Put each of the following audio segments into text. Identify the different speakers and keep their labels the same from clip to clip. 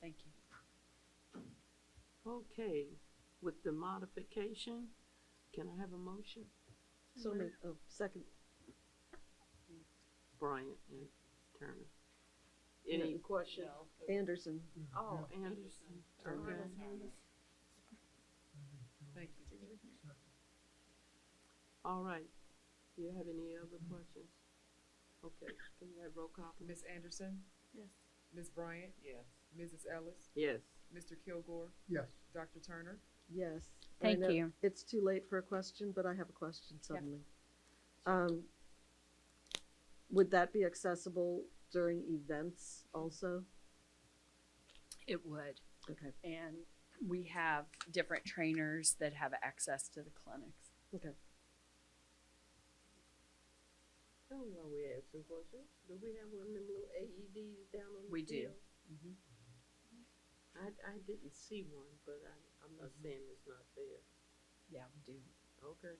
Speaker 1: Thank you.
Speaker 2: Okay, with the modification, can I have a motion?
Speaker 3: So moved, oh, second,
Speaker 2: Bryant and Turner.
Speaker 3: No.
Speaker 2: Any questions?
Speaker 3: Anderson.
Speaker 2: Oh, Anderson, Turner.
Speaker 1: Thank you.
Speaker 2: All right. Do you have any other questions? Okay, can you have roll call? please?
Speaker 4: Ms. Anderson?
Speaker 3: Yes.
Speaker 4: Ms. Bryant? Yes. Mrs. Ellis?
Speaker 2: Yes.
Speaker 4: Mr. Kilgore?
Speaker 5: Yes,
Speaker 4: Dr. Turner?
Speaker 3: Yes.
Speaker 6: Thank
Speaker 3: I know
Speaker 6: you.
Speaker 3: It's too late for a question, but I have a question suddenly. Um, would that be accessible during events also?
Speaker 6: It would.
Speaker 3: Okay,
Speaker 6: And we have different trainers that have access to the clinics.
Speaker 3: okay.
Speaker 2: Oh, well, we have some questions. Do we have one of them little AEDs down on the
Speaker 6: We do.
Speaker 2: field? I, I didn't see one, but I, I'm not
Speaker 6: Mm-hmm.
Speaker 2: saying it's not there.
Speaker 6: Yeah, we do.
Speaker 2: Okay.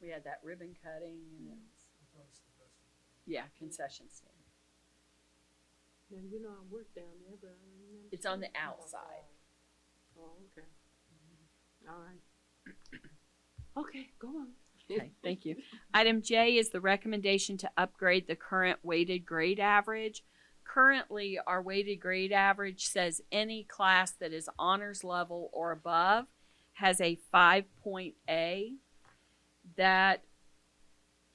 Speaker 6: We had that ribbon cutting and it was, yeah, concession stand.
Speaker 2: Now, you know, I work down there, but I don't remember.
Speaker 6: It's on the
Speaker 2: seeing it.
Speaker 6: outside.
Speaker 2: Oh, okay. Mm-hmm. All right. Okay, go on.
Speaker 6: Okay, thank you. Item J is the recommendation to upgrade the current weighted grade average. Currently, our weighted grade average says any class that is honors level or above has a five point A. That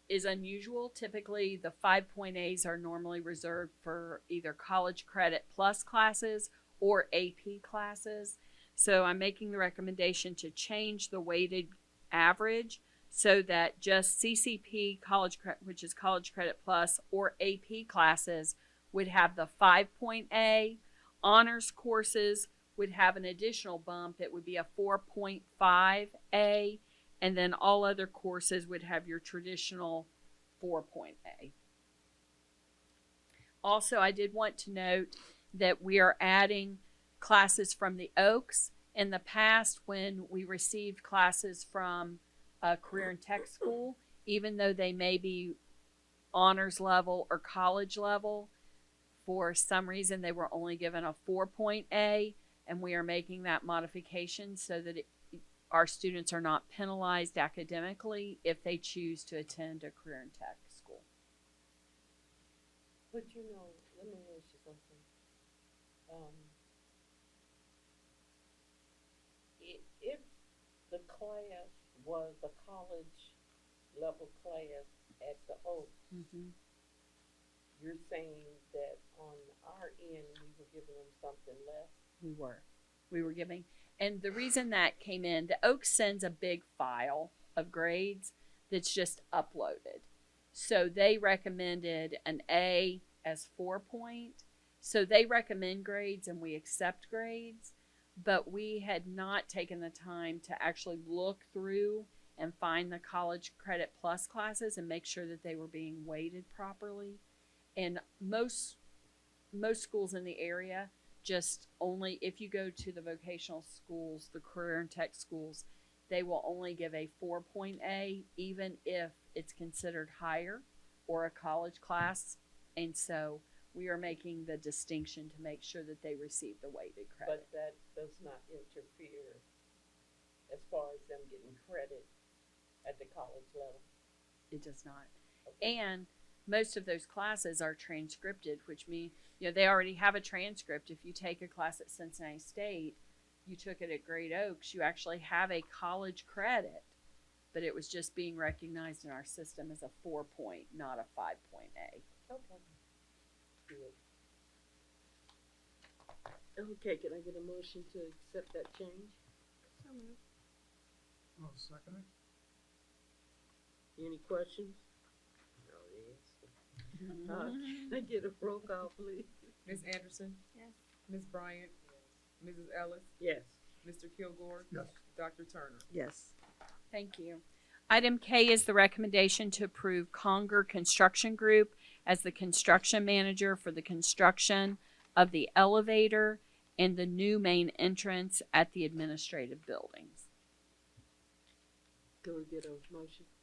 Speaker 6: is unusual. Typically, the five point A's are normally reserved for either college credit plus classes or AP classes. So I'm making the recommendation to change the weighted average so that just CCP college credit, which is College Credit Plus, or AP classes would have the 5.A. Honors courses would have an additional bump. It would be a 4.5A. And then all other courses would have your traditional 4.A. Also, I did want to note that we are adding classes from the Oaks. In the past, when we received classes from a career and tech school, even though they may be honors level or college level, for some reason they were only given a 4.A, and we are making that modification so that it, our students are not penalized academically if they choose to attend a career and tech school.
Speaker 2: But you know, let me ask you something. Um, i- if the class was the college level class at the Oak, you're saying that on our end, we were giving them something less?
Speaker 6: We were. We were giving. And the reason that came in, the Oaks sends a big file of grades that's just uploaded. So they recommended an A as four point. So they recommend grades and we accept grades, but we had not taken the time to actually look through and find the college credit plus classes and make sure that they were being weighted properly. And most most schools in the area just only if you go to the vocational schools, the career and tech schools, they will only give a 4.A even if it's considered higher or a college class. And so we are making the distinction to make sure that they receive the weighted credit.
Speaker 2: But that does not interfere as far as them getting credit at the college level.
Speaker 6: it does not.
Speaker 2: Okay.
Speaker 6: And most of those classes are transcripted, which means you know they already have a transcript. If you take a class at Cincinnati State, you took it at Great Oaks, you actually have a college credit, but it was just being recognized in our system as a four point, not a five point A.
Speaker 2: Okay. Good. Okay, can I get a motion to accept that change?
Speaker 5: I'll second it.
Speaker 2: Any questions? No, Uh, can I get a roll call, please?
Speaker 4: Ms. Anderson?
Speaker 1: Yes.
Speaker 4: Ms. Bryant? Mrs. Ellis?
Speaker 2: Yes.
Speaker 4: Mr. Kilgore?
Speaker 5: Yes.
Speaker 4: Dr. Turner?
Speaker 3: Yes,
Speaker 6: Thank you. Item K is the recommendation to approve Conger Construction Group as the construction manager for the construction of the elevator and the new main entrance at the administrative buildings.
Speaker 2: Can we get a motion?